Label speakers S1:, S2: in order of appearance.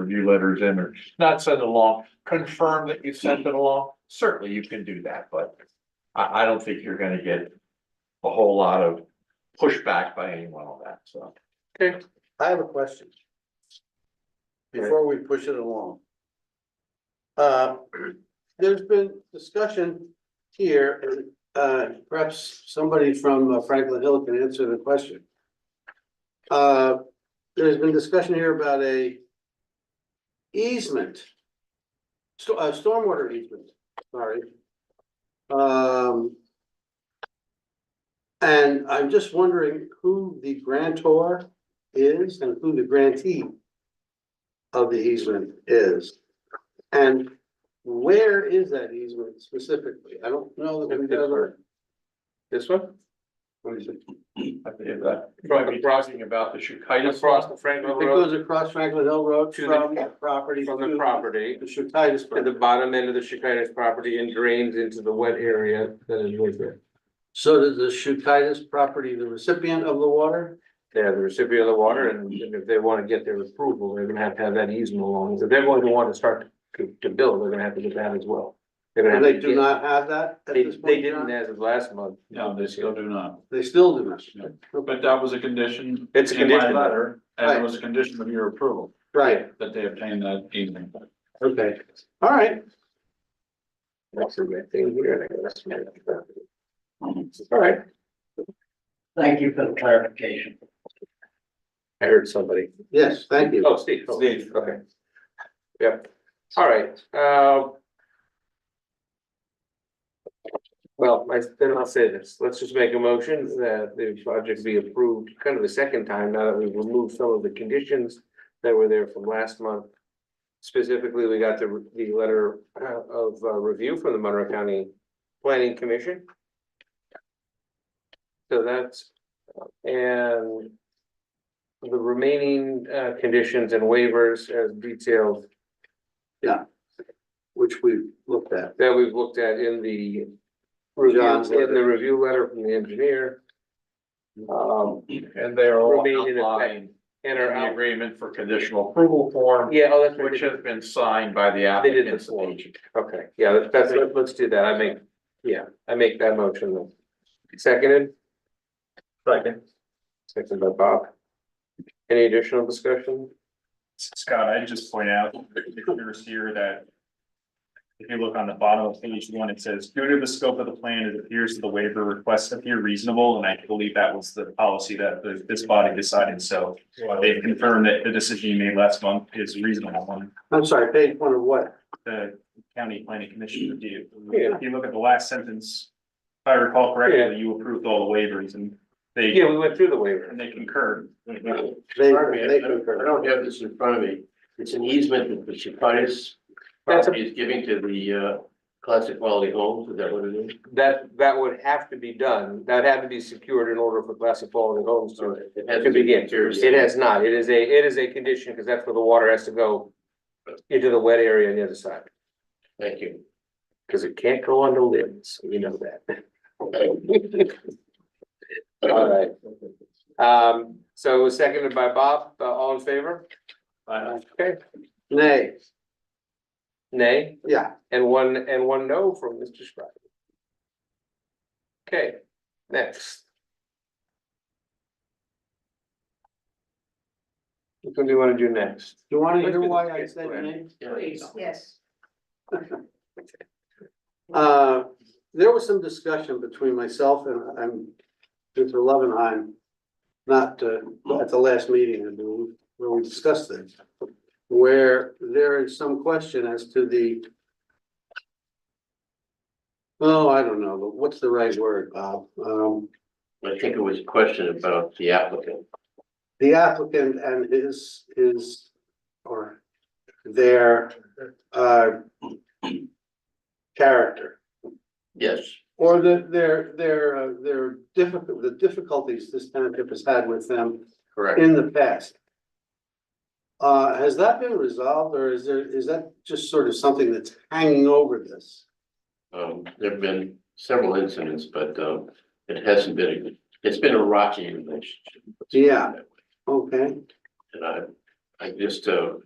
S1: review letters in or not send it along, confirm that you sent it along. Certainly you can do that, but I, I don't think you're gonna get a whole lot of pushback by anyone on that, so.
S2: I have a question. Before we push it along. Uh, there's been discussion here, and, uh, perhaps somebody from uh, Franklin Hill can answer the question. Uh, there's been discussion here about a easement. Sto- uh, stormwater easement, sorry. Um. And I'm just wondering who the grantor is and who the grantee of the easement is. And where is that easement specifically? I don't know that we've ever.
S3: This one?
S2: What is it?
S1: I think that, probably be talking about the Chukitis.
S3: Across the Franklin
S2: It
S3: Road,
S2: goes across Franklin Hill Road
S3: To the-
S2: from the property.
S3: from
S2: to
S3: the property,
S2: The Shutitis.
S3: to the
S2: property.
S3: bottom end of the Chicanis property and drains into the wet area that is right there.
S2: So does the Shutitis property, the recipient of the water?
S3: They are the recipient of the water and and if they want to get their approval, they're gonna have to have that easement along. If they're going to want to start to, to build, they're gonna have to get that as well. They're gonna
S2: And
S3: have
S2: they
S3: to
S2: do
S3: get-
S2: not have that at
S3: They,
S2: this point?
S3: they didn't
S2: John?
S3: as of last month.
S4: No, they still do not,
S2: They still do not.
S4: No. but that was a condition.
S3: It's a
S4: in my
S3: condition.
S4: Letter, and
S2: Right.
S4: it was a condition of your approval,
S2: Right,
S4: that they obtained that easement.
S2: okay. All right,
S3: That's the right thing here. I guess.
S2: all right.
S5: Thank you for the clarification.
S3: I heard somebody.
S2: Yes, thank you.
S3: Oh, Steve, Steve, okay. Yep, all right, um. Well, I, then I'll say this, let's just make a motion that the project be approved kind of a second time, now that we've removed some of the conditions that were there from last month. Specifically, we got the, the letter uh, of uh, review from the Monroe County Planning Commission. So that's, and the remaining uh conditions and waivers as detailed
S2: Which we looked at.
S3: that we've looked at in the review,
S2: John's letter.
S3: in the review letter from the engineer. Um,
S1: And they are all
S3: Remain in effect.
S1: outlined in
S3: and are
S1: the
S3: out,
S1: agreement for conditional approval form,
S3: yeah, oh, that's what
S1: which uh,
S3: it is,
S1: has been signed by the
S3: They did the
S1: applicants.
S3: form. okay, yeah, that's- that's, let's- let's do that, I make, yeah, I make that motion then. Seconded,
S4: Second.
S3: seconded by Bob. Any additional discussion?
S6: Scott, I just point out, the clearest here that. If you look on the bottom of page one, it says, due to the scope of the plan, it appears that the waiver requests appear reasonable, and I believe that was the policy that the- this body decided, so. uh, They've confirmed that the decision you made last month is reasonable on
S2: I'm sorry, page one of what?
S6: the county planning commission review.
S3: Yeah.
S6: If you look at the last sentence, if I recall correctly, you approved all the waivers and they,
S3: Yeah, Mm-hmm. we went through the
S6: and
S3: waiver,
S6: they concurred.
S2: They,
S5: Pardon me, I
S2: they
S5: I don't I
S2: concur.
S5: don't have this in front of me. It's an easement that the Chukitis
S3: That's a-
S5: property is giving to the uh classic quality homes, is that what it is?
S3: that, that would have to be done, that would have to be secured in order for Classic Quality Homes to
S5: It has
S3: To begin,
S5: secured.
S3: it has not, it is a, it is a condition, because that's where the water has to go into the wet area on the other side,
S5: Thank you.
S3: because it can't go on the limbs, we know that. All right. Um, so it was seconded by Bob, Uh, all in favor? Okay,
S2: Nay,
S3: nay,
S2: yeah,
S3: and one, and one no from Mr. Scribe. Okay, next. What do you want to do next?
S2: do you wanna hear why I said nay?
S5: Please.
S7: Yes.
S2: Uh, there was some discussion between myself and, and Mr. Lovenheim. Not, uh, at the last meeting, I believe, where we discussed this. Where there is some question as to the. Oh, I don't know, but what's the right word, Bob? Um,
S5: I think it was a question about the applicant.
S2: the applicant and his, his, or their, uh, character,
S5: Yes,
S2: or the, their, their, uh, their difficult, the difficulties this township has had with them
S5: correct.
S2: in the past. Uh, has that been resolved, or is there, is that just sort of something that's hanging over this?
S5: Um, there have been several incidents, but um it hasn't been, a it's been a rocky relationship.
S2: Yeah. Okay,
S5: And I, I just, uh,